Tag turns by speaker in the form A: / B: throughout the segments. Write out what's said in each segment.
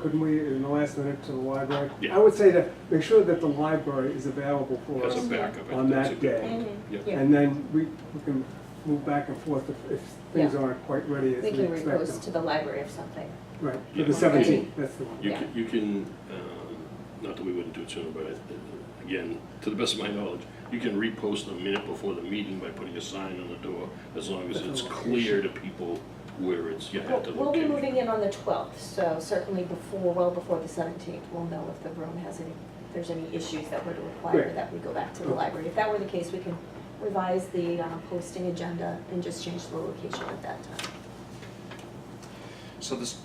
A: couldn't we, in the last minute, to the library?
B: Yeah.
A: I would say to make sure that the library is available for
B: As a
A: us,
B: backup. I
A: On
B: think that's a
A: that day.
B: good point.
C: Mhm.
B: Yeah.
C: Yeah.
A: and then we we can move back and forth if, if things
C: Yeah.
A: aren't quite ready as
C: We
A: we
C: can
A: expect
C: repost
A: them.
C: to the library or something.
A: Right, for
B: Yeah.
A: the
B: Okay.
A: seventeenth, that's the one.
B: You
C: Yeah.
B: can, you can, um, not that we wouldn't do it sooner, but I- I- again, to the best of my knowledge, you can repost a minute before the meeting by putting a sign on the door, as long as
A: That's
B: it's
A: a
B: clear to people where it's, you have to
C: We'll be
B: locate.
C: moving in on the 12th, so certainly before, well before the 17th, we'll know if the room has any, if there's any issues that would require
A: Great.
C: that we go back to the
A: Okay.
C: library. If that were the case, we can revise the uh, posting agenda and just change the location at that time.
D: So this,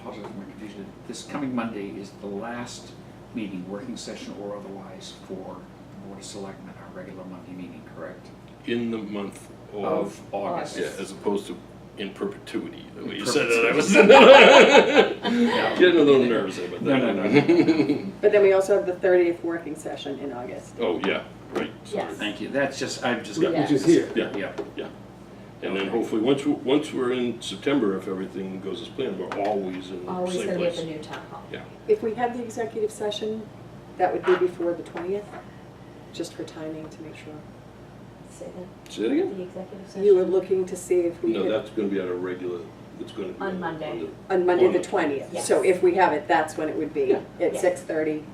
D: apologize for my confusion, this coming Monday is the last meeting, working session or otherwise, for Board of Selectmen, our regular Monday meeting, correct?
B: In the month of,
C: August.
B: yeah, as opposed to in perpetuity, the way
D: In
B: you said that, I was
D: No.
B: getting a little nervous about
D: No,
B: that.
D: no, no.
E: But then we also have the thirtieth working session in August.
B: Oh, yeah, right, sorry.
C: Yes.
D: Thank you, that's just, I've just got.
A: Which is here.
B: Yeah.
D: Yeah,
B: And then
D: Okay.
B: hopefully, once, we- once we're in September, if everything goes as planned, we're always in the
C: Always
B: same
C: gonna be at the
B: place.
C: new town hall.
B: Yeah.
E: If we had the executive session, that would be before the twentieth, just for timing to make sure.
C: Say that,
B: Say it again?
C: the executive session.
E: You were looking to see if we
B: No,
E: could,
B: that's gonna be at a regular, it's gonna be.
C: On Monday.
E: on Monday
B: on
E: the
B: the-
E: twentieth.
C: Yes.
E: So if we have it, that's when it would be, at
C: Yeah.
E: six thirty,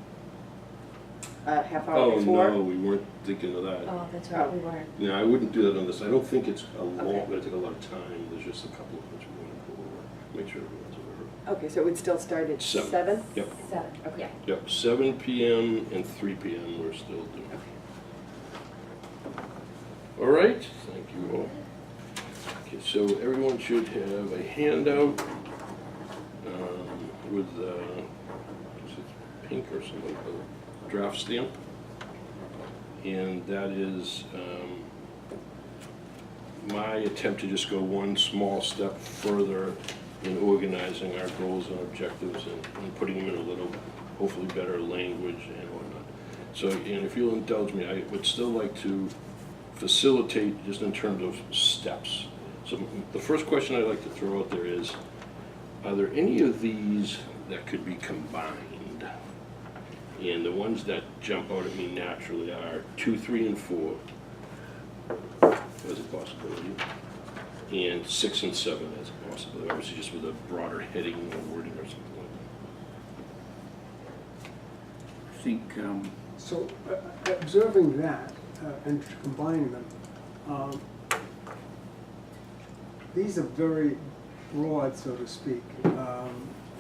E: a half hour
B: Oh,
E: before.
B: no, we weren't thinking of that.
C: Oh, that's right, we weren't.
B: No, I wouldn't do that on this. I don't think it's a long,
E: Okay.
B: gonna take a lot of time. There's just a couple of things we wanna go over, make sure everyone's aware of.
E: Okay, so it would still start at
B: Seven.
E: seven?
B: Yep,
C: Seven,
E: Okay.
C: yeah.
B: yep, seven PM and three PM we're still doing. All right, thank you all. Okay, so everyone should have a handout um, with, uh, is it pink or something, a draft stamp? And that is um, my attempt to just go one small step further in organizing our goals and objectives and- and putting them in a little, hopefully better language and whatnot. So, and if you'll indulge me, I would still like to facilitate just in terms of steps. So the first question I'd like to throw out there is, are there any of these that could be combined? And the ones that jump out at me naturally are two, three, and four as a possibility, and six and seven as a possibility, obviously just with a broader heading or wording or something like
D: I think, um,
A: So uh, observing that uh, and combining them, um, these are very broad, so to speak, um,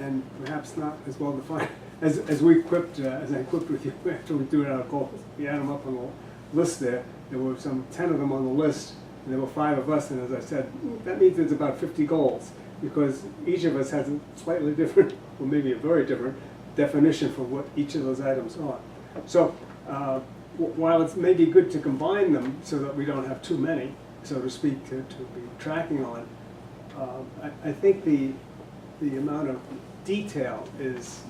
A: and perhaps not as well defined as, as we equipped, uh, as I equipped with you after we threw it out of goals. We had them up on the list there. There were some ten of them on the list, and there were five of us, and as I said, that means there's about fifty goals because each of us has a slightly different, or maybe a very different definition for what each of those items are. So uh, wh- while it's maybe good to combine them so that we don't have too many, so to speak, to, to be tracking on, um, I, I think the, the amount of detail is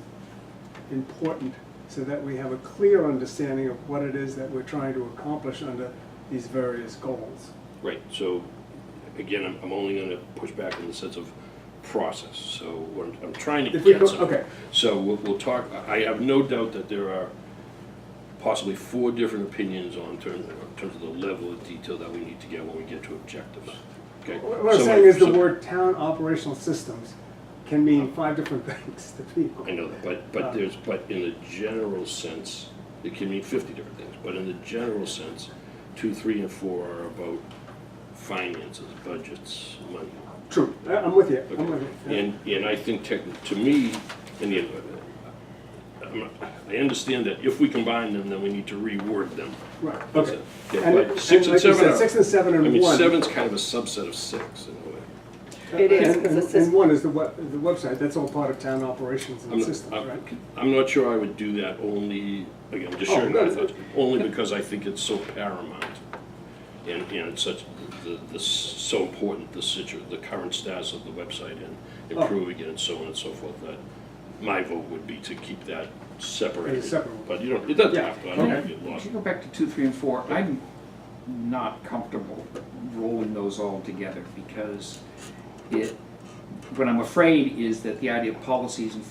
A: important so that we have a clear understanding of what it is that we're trying to accomplish under these various goals.
B: that. Right, so, again, I'm, I'm only gonna push back in the sense of process, so what I'm- I'm trying to
A: If we
B: get
A: go,
B: somewhere.
A: okay,
B: So we'll, we'll talk, I I have no doubt that there are possibly four different opinions on terms, in terms of the level of detail that we need to get when we get to objectives. Okay?
A: What what I'm
B: So
A: saying is the
B: so-
A: word town operational systems can mean five different things to people.
B: I know that, but, but there's, but in the general sense, it can mean fifty different things, but in the general sense, two, three, and four are about finances, budgets, money.
A: True, I- I'm with you, I'm with you. yeah.
B: And, and I think tech, to me, in the, I'm not- I understand that if we combine them, then we need to reword them.
A: Right,
B: That's
A: okay.
B: it.
A: And-
B: Yeah, but six and
A: like you
B: seven
A: said,
B: are.
A: Six and seven
B: I
A: and
B: mean,
A: one.
B: seven's kind of a subset of six in a way.
E: It is,
A: And-
E: 'cause
A: and-
E: it's this-
A: And one is the web, the website, that's all part of town operations
B: I'm
A: and systems,
B: not,
A: right?
B: I'm- I'm not sure I would do that only, again, just
A: Oh,
B: sharing my
A: no,
B: thoughts, only because I think it's so paramount. And, and it's such, the, the, s- so important, the situ, the current status of the website and
A: Oh.
B: improving it and so on and so forth, that my vote would be to keep that separated.
A: separate.
B: But you don't, it doesn't
A: Yeah.
B: have to, I don't
D: can I-
B: have to get
D: can
B: lost.
D: you go back to two, three, and four? I'm not comfortable rolling those all together because it, what I'm afraid is that the idea of policies and